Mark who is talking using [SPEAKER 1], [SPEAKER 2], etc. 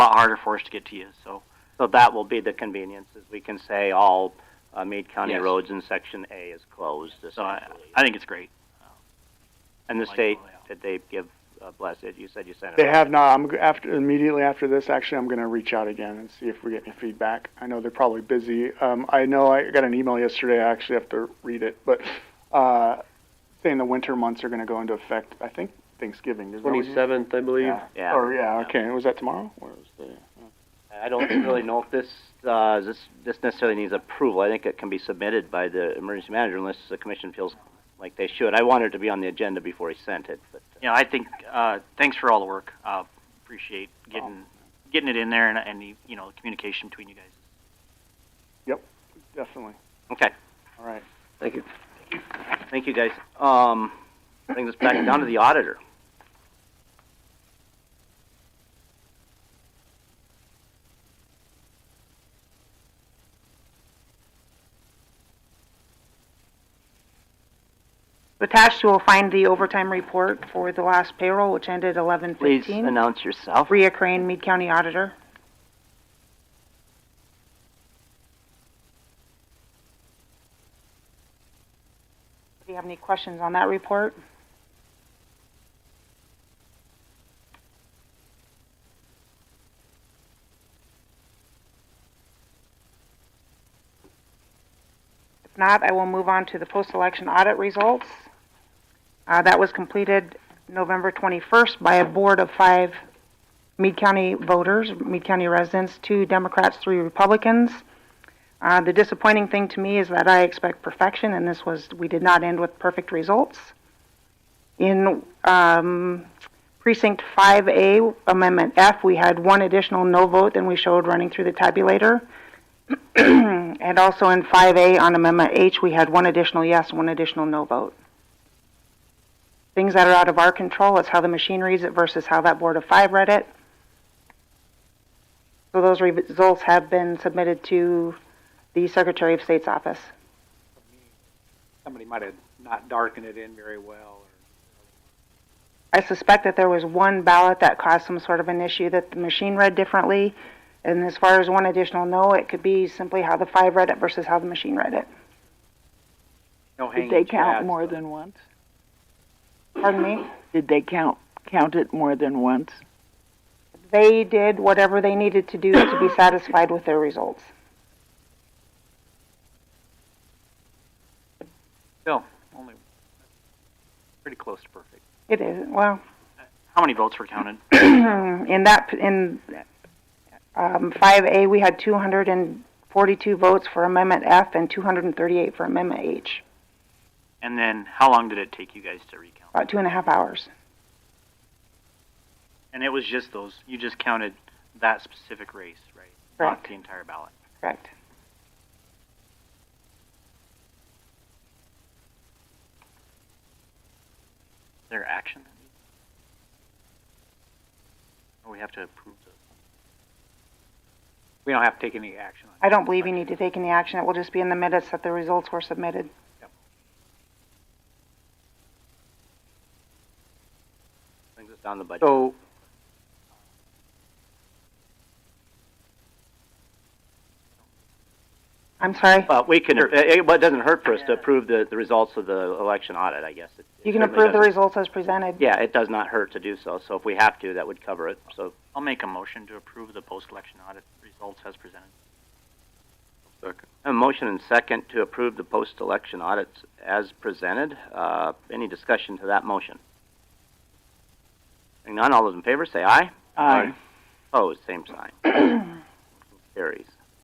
[SPEAKER 1] lot harder for us to get to you. So,
[SPEAKER 2] So that will be the convenience, is we can say all uh, Meade County
[SPEAKER 1] Yes.
[SPEAKER 2] roads in Section A is closed,
[SPEAKER 1] so I,
[SPEAKER 2] essentially.
[SPEAKER 1] I think it's great.
[SPEAKER 2] And the
[SPEAKER 1] like
[SPEAKER 2] state,
[SPEAKER 1] all
[SPEAKER 2] did
[SPEAKER 1] that.
[SPEAKER 2] they give a bless it? You said you sent it.
[SPEAKER 3] They
[SPEAKER 2] out.
[SPEAKER 3] have not. I'm g- after immediately after this. Actually, I'm going to reach out again and see if we get any feedback. I know they're probably busy. Um, I know I got an email yesterday. I actually have to read it, but uh, saying the winter months are going to go into effect. I think Thanksgiving. Isn't that what you-
[SPEAKER 4] Twenty-seventh, I believe.
[SPEAKER 3] Yeah.
[SPEAKER 2] Yeah.
[SPEAKER 3] Or yeah. Okay. Was that tomorrow? Or was the,
[SPEAKER 2] I don't really know if this, uh, this, this necessarily needs approval. I think it can be submitted by the emergency manager unless the commission feels like they should. I wanted it to be on the agenda before he sent it, but.
[SPEAKER 1] Yeah, I think, uh, thanks for all the work. Uh, appreciate getting, getting it in there and, and, the, you know, the communication between you guys.
[SPEAKER 3] definitely.
[SPEAKER 2] Okay.
[SPEAKER 3] All right.
[SPEAKER 4] Thank you.
[SPEAKER 2] Thank you, guys. Um, brings us back down to the auditor.
[SPEAKER 5] Attached, you will find the overtime report for the last payroll, which ended eleven
[SPEAKER 2] Please
[SPEAKER 5] fifteen.
[SPEAKER 2] announce yourself.
[SPEAKER 5] Rhea Crane, Mead County Auditor. Do you have any questions on that report? If not, I will move on to the post-election audit results. Uh, that was completed November 21st by a board of five Meade County voters, Meade County residents, two Democrats, three Republicans. Uh, the disappointing thing to me is that I expect perfection, and this was, we did not end with perfect results. In um, Precinct 5A, Amendment F, we had one additional no vote than we showed running through the tabulator. and also in 5A on Amendment H, we had one additional yes, one additional no vote things that are out of our control. It's how the machine reads it versus how that board of five read it. So those re- results have been submitted to the Secretary of State's office.
[SPEAKER 6] somebody might have not darkened it in very well.
[SPEAKER 5] I suspect that there was one ballot that caused some sort of an issue that the machine read differently. And as far as one additional no, it could be simply how the five read it versus how the machine read it.
[SPEAKER 6] Or no hanging
[SPEAKER 7] Did they count
[SPEAKER 6] chads,
[SPEAKER 7] more
[SPEAKER 6] but-
[SPEAKER 7] than once?
[SPEAKER 5] Pardon me?
[SPEAKER 7] Did they count, count it more than once?
[SPEAKER 5] They did whatever they needed to do to be satisfied with their results.
[SPEAKER 1] Still, only, pretty close to perfect.
[SPEAKER 5] It is, well,
[SPEAKER 1] How many votes were counted?
[SPEAKER 5] in that, in, um, five A, we had two hundred and forty-two votes for Amendment F and two hundred and thirty-eight for Amendment H,
[SPEAKER 1] And then how long did it take you guys to recount?
[SPEAKER 5] about two and a half hours.
[SPEAKER 1] And it was just those, you just counted that specific race, right? Not
[SPEAKER 5] Correct.
[SPEAKER 1] the entire ballot.
[SPEAKER 5] Correct.
[SPEAKER 1] Is there action? that needs- Or we have to approve the
[SPEAKER 6] We don't have to take any action on it.
[SPEAKER 5] I don't believe you need to take any action. It will just be in the minutes that the results were submitted.
[SPEAKER 2] Brings us down the budget.
[SPEAKER 6] So,
[SPEAKER 5] I'm sorry.
[SPEAKER 2] But we can, it, it- but it doesn't hurt for us to approve the, the results of the election audit, I guess. It- it
[SPEAKER 5] You can
[SPEAKER 2] certainly
[SPEAKER 5] approve the
[SPEAKER 2] doesn't-
[SPEAKER 5] results as presented.
[SPEAKER 2] Yeah, it does not hurt to do so, so if we have to, that would cover it, so.
[SPEAKER 1] I'll make a motion to approve the post-election audit results as presented.
[SPEAKER 2] A motion and second to approve the post-election audits as presented. Uh, any discussion to that motion? Hearing none, all those in favor say aye.
[SPEAKER 7] Aye.
[SPEAKER 2] Opposed, same sign. Carries.